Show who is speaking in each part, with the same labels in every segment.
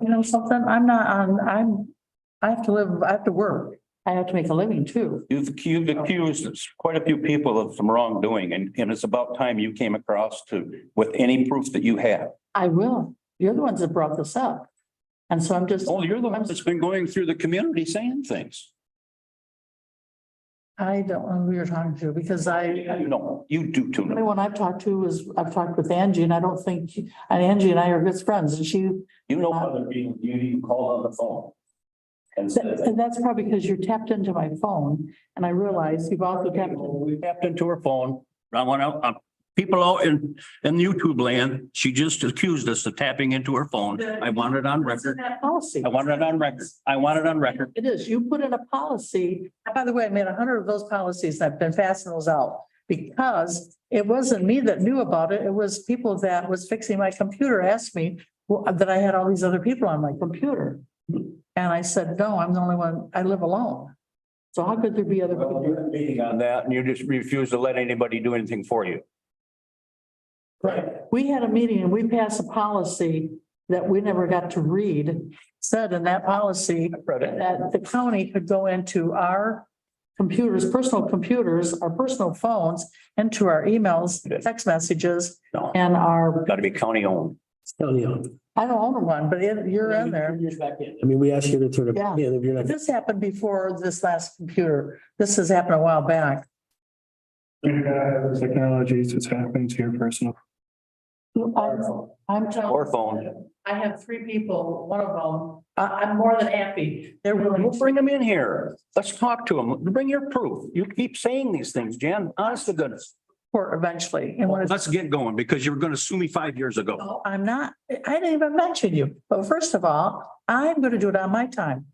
Speaker 1: You know something, I'm not on, I'm, I have to live, I have to work. I have to make a living too.
Speaker 2: You've ac- you've accused quite a few people of some wrongdoing and, and it's about time you came across to, with any proof that you have.
Speaker 1: I will. You're the ones that brought this up. And so I'm just,
Speaker 2: Oh, you're the one that's been going through the community saying things.
Speaker 1: I don't know who you're talking to because I,
Speaker 2: No, you do too.
Speaker 1: the
Speaker 2: no.
Speaker 1: one I've talked to is, I've talked with Angie and I don't think, and Angie and I are good friends and she,
Speaker 2: You know other people, you, you called on the phone. And
Speaker 1: that- and that's probably because you're tapped into my phone and I realize you've also tapped.
Speaker 2: We tapped into her phone. I went out, uh, people out in, in YouTube land, she just accused us of tapping into her phone. I want it on record.
Speaker 1: That Policy.
Speaker 2: I want it on record. I want it on record.
Speaker 1: It is. You put in a policy. By the way, I made a hundred of those policies and I've been passing those out because it wasn't me that knew about it. It was people that was fixing my computer asked me well, that I had all these other people on my computer. And I said, no, I'm the only one, I live alone. So how could there be other people?
Speaker 2: Meeting on that and you just refuse to let anybody do anything for you.
Speaker 1: We had a meeting and we passed a policy that we never got to read. Said in that policy that the county could go into our computers, personal computers, our personal phones, into our emails, text messages,
Speaker 2: No,
Speaker 1: and our,
Speaker 2: gotta be county owned.
Speaker 3: County on.
Speaker 1: I don't own one, but it- you're in there.
Speaker 3: I mean, we asked you to sort of,
Speaker 1: Yeah.
Speaker 3: yeah, if you're not.
Speaker 1: This happened before this last computer. This has happened a while back.
Speaker 4: Technologies, it's happening to your personal.
Speaker 1: I'm- I'm telling.
Speaker 2: Or phone.
Speaker 1: I have three people, one of them, I, I'm more than happy. Uh, They're
Speaker 2: Well,
Speaker 1: willing to
Speaker 2: bring them in here. Let's talk to them. Bring your proof. You keep saying these things, Jan, honest to goodness.
Speaker 1: support eventually. And when it's
Speaker 2: Let's get going because you were gonna sue me five years ago.
Speaker 1: No, I'm not, I didn't even mention you, but first of all, I'm gonna do it on my time.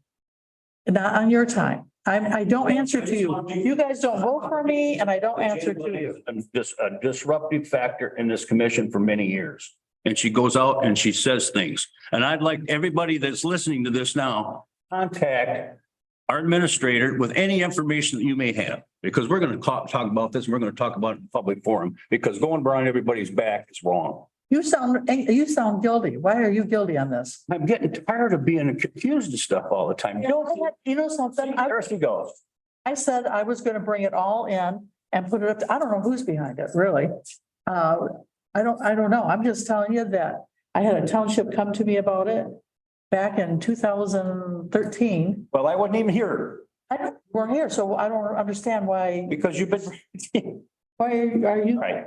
Speaker 1: Not on your time. I'm, I don't answer to you. You guys don't vote for me and I don't answer to you.
Speaker 2: And This, a disruptive factor in this commission for many years. And she goes out and she says things. And I'd like everybody that's listening to this now, contact our administrator with any information that you may have, because we're gonna talk, talk about this and we're gonna talk about it in public forum, because going behind everybody's back is wrong.
Speaker 1: You sound, eh, you sound guilty. Why are you guilty on this?
Speaker 2: I'm getting tired of being confused and stuff all the time.
Speaker 1: You know, I had- you know something? I,
Speaker 2: There she goes.
Speaker 1: I said I was gonna bring it all in and put it up. to- I don't know who's behind it, really. Uh, I don't, I don't know. I'm just telling you that I had a township come to me about it back in two thousand thirteen.
Speaker 2: Well, I wasn't even here
Speaker 1: I don't, we're here, so I don't understand why,
Speaker 2: because you've been.
Speaker 1: why are you?
Speaker 2: Right.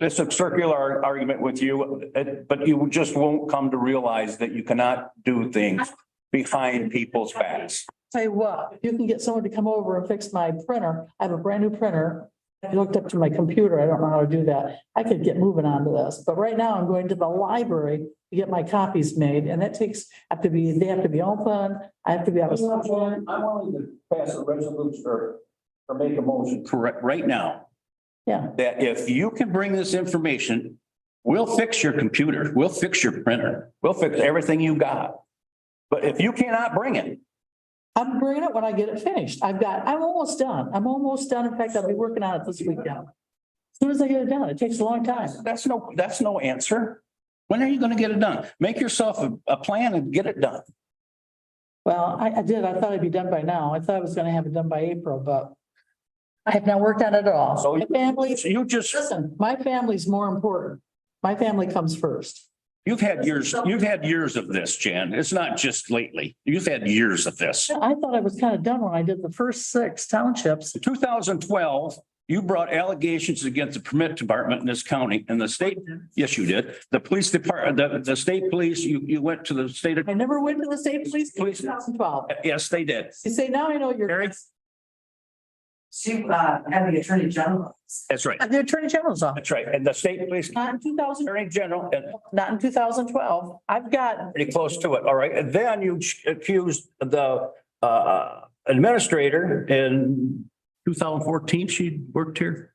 Speaker 2: It's a circular ar- argument with you, uh, but you just won't come to realize that you cannot do things behind people's backs.
Speaker 1: Tell you what, if you can get someone to come over and fix my printer, I have a brand new printer. I hooked up to my computer, I don't know how to do that. I could get moving on to this, but right now I'm going to the library to get my copies made and that takes, I have to be, they have to be open, I have to be. able to-
Speaker 2: wanting to pass a resolution or, or make a motion. Correct, right now.
Speaker 1: Yeah.
Speaker 2: That if you can bring this information, we'll fix your computer, we'll fix your printer, we'll fix everything you got. But if you cannot bring it,
Speaker 1: I'm bringing it when I get it finished. I've got, I'm almost done. I'm almost done. In fact, I'll be working on it this weekend. Soon as I get it done, it takes a long time.
Speaker 2: that's no, that's no answer. When are you gonna get it done? Make yourself a, a plan and get it done.
Speaker 1: Well, I, I did. I thought it'd be done by now. I thought I was gonna have it done by April, but I have not worked on it at all.
Speaker 2: So-
Speaker 1: My family,
Speaker 2: So you just,
Speaker 1: listen, my family's more important. My family comes first.
Speaker 2: you've had years, you've had years of this, Jan. It's not just lately. You've had years of this.
Speaker 1: I thought I was kind of done when I did the first six townships.
Speaker 2: Two thousand twelve, you brought allegations against the permit department in this county and the state, yes, you did. The police department, the, the state police, you, you went to the state,
Speaker 1: I never went to the state police in
Speaker 2: Please.
Speaker 1: 2012.
Speaker 2: yes, they did.
Speaker 1: You say, now I know you're.
Speaker 2: Mary?
Speaker 1: She, uh, had the attorney general.
Speaker 2: That's right.
Speaker 1: The attorney general's office,
Speaker 2: That's right. And the state police
Speaker 1: not in two thousand,
Speaker 2: attorney general, and
Speaker 1: not in two thousand twelve. I've got,
Speaker 2: pretty close to it, all right? And then you accused the uh, administrator in two thousand fourteen, she worked here?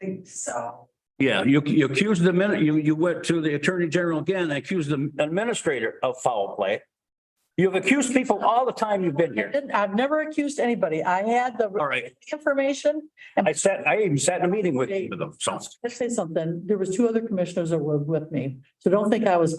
Speaker 5: think so.
Speaker 2: Yeah, you, you accused the minute, you, you went to the attorney general again, and accused the administrator of foul play. You've accused people all the time you've been here.
Speaker 1: didn't- I've never accused anybody. I had the
Speaker 2: All right,
Speaker 1: information.
Speaker 2: I sat, I even sat in a meeting with you, so.
Speaker 1: Let's say something. There was two other commissioners that were with me, so don't think I was